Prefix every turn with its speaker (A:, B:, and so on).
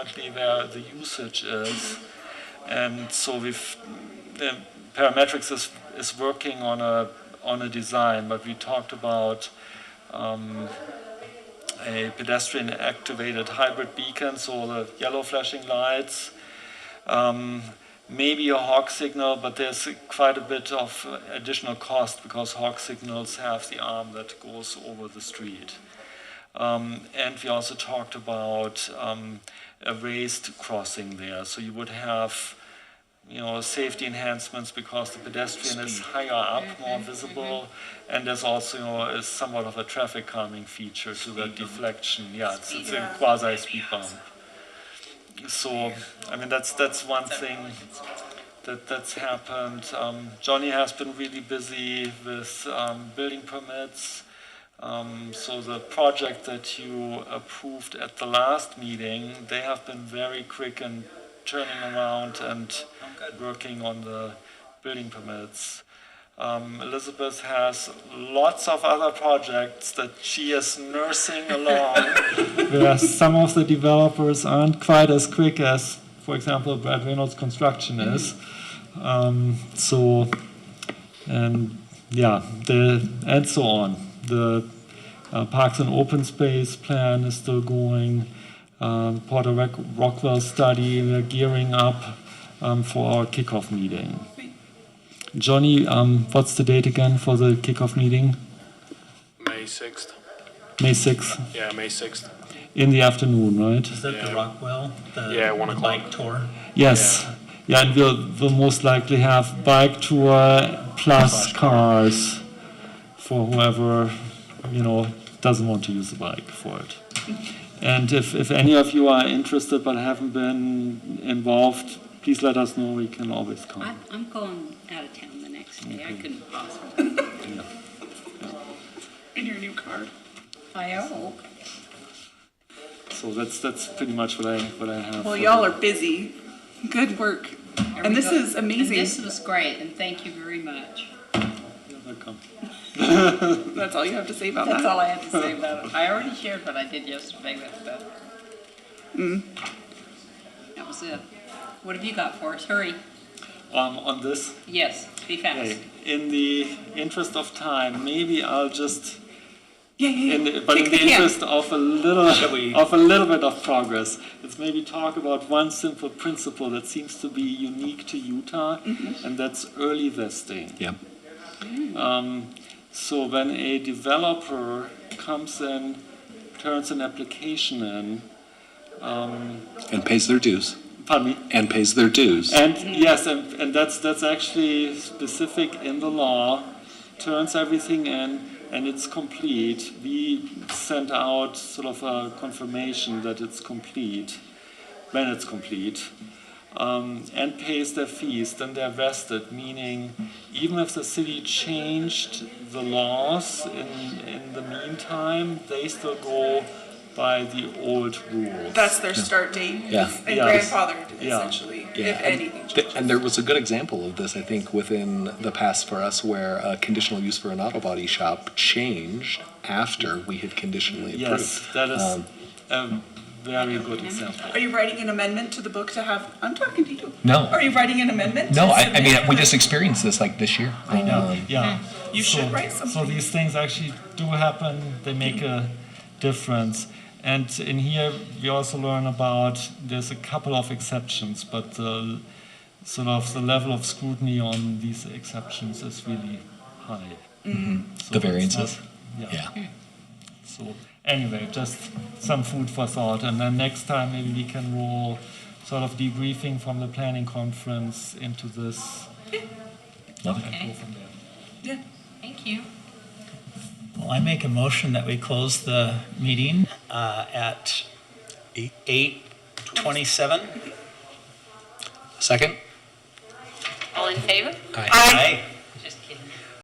A: exactly where the usage is. And so we've, the parametrics is, is working on a, on a design, but we talked about um, a pedestrian activated hybrid beacon, so the yellow flashing lights, um, maybe a hawk signal, but there's quite a bit of additional cost because hawk signals have the arm that goes over the street. Um, and we also talked about um, a raised crossing there. So you would have, you know, safety enhancements because the pedestrian is higher up, more visible, and there's also you know, is somewhat of a traffic calming feature to that deflection. Yeah, it's, it's a quasi speed bump. So, I mean, that's that's one thing that that's happened. Um, Johnny has been really busy with um, building permits. Um, so the project that you approved at the last meeting, they have been very quick in turning around and working on the building permits. Um, Elizabeth has lots of other projects that she is nursing along, where some of the developers aren't quite as quick as, for example, Brad Reynolds Construction is. Um, so, and yeah, the, and so on. The uh, Parks and Open Space plan is still going. Um, Porter Rock- Rockwell study, we're gearing up um, for our kickoff meeting. Johnny, um, what's the date again for the kickoff meeting?
B: May 6th.
A: May 6th
B: Yeah, May 6th.
A: in the afternoon, right?
C: Is that the
B: Yeah.
C: Rockwell? The,
B: Yeah, one
C: the
B: o'clock.
C: Bike tour.
A: Yes. Yeah, and we'll, we'll most likely have bike tour plus cars for whoever, you know, doesn't want to use a bike for it. And if, if any of you are interested but haven't been involved, please let us know. We can always
D: I-
A: come.
D: I'm going out of town the next day. I couldn't possibly.
E: In your new card.
D: I hope.
A: So that's that's pretty much what I what I have.
E: Well,
A: for
E: y'all
A: the-
E: are busy. Good work.
D: There
E: And
D: we
E: this
D: go.
E: is amazing.
D: And this was great, and thank you very much.
A: You're welcome.
E: That's all you have to say about
D: That's
E: that.
D: all I have to say about it. I already shared what I did yesterday with the.
E: Mm.
D: That was it. What have you got for us? Hurry.
A: Um, on this.
D: Yes, be fast.
A: Okay. In the interest of time, maybe I'll just,
E: Yeah, yeah,
A: in
E: yeah.
A: the, but in
E: Kick
A: the
E: the can.
A: interest of a little of a little bit of progress, let's maybe talk about one simple principle that seems to be unique to Utah, and that's early vesting.
C: Yep.
A: Um, so when a developer comes in, turns an application in, um,
C: And pays their dues.
A: pardon me,
C: And pays their dues.
A: And yes, and, and that's that's actually specific in the law. Turns everything in, and it's complete. We sent out sort of a confirmation that it's complete when it's complete, um, and pays their fees. Then they're vested, meaning even if the city changed the laws in in the meantime, they still go by the old rules.
E: That's their start date.
F: Yeah.
E: And
A: Yeah.
E: grandfathered,
A: Yeah.
E: essentially, if
F: Yeah, and,
E: anything
F: th-
E: changes.
F: and there was a good example of this, I think, within the past for us, where a conditional use for an auto body shop changed after we had conditionally approved.
A: yes, that is
F: Um,
A: a very good example.
E: Are you writing an amendment to the book to have? I'm talking to you.
F: No.
E: Are you writing an amendment?
F: No,
E: to
F: I, I mean,
E: submit?
F: we just experienced this like this year. Um, I know.
A: Um, Yeah.
E: You
A: so,
E: should write
A: So
E: something.
A: these things actually do happen. They make a difference. And in here, we also learn about there's a couple of exceptions, but the, sort of the level of scrutiny on these exceptions is really high. So
F: Mm-hmm. The
A: it's
F: variances.
A: not- yeah.
F: yeah.
A: So anyway, just some food for thought. And then next time maybe we can roll sort of debriefing from the planning conference into this
F: Love it.
A: and go from there.
E: Yeah.
D: Thank you.
G: Well, I make a motion that we close the meeting uh, at 8:27.
F: Second?
D: All in favor?
F: Aye.
G: Aye.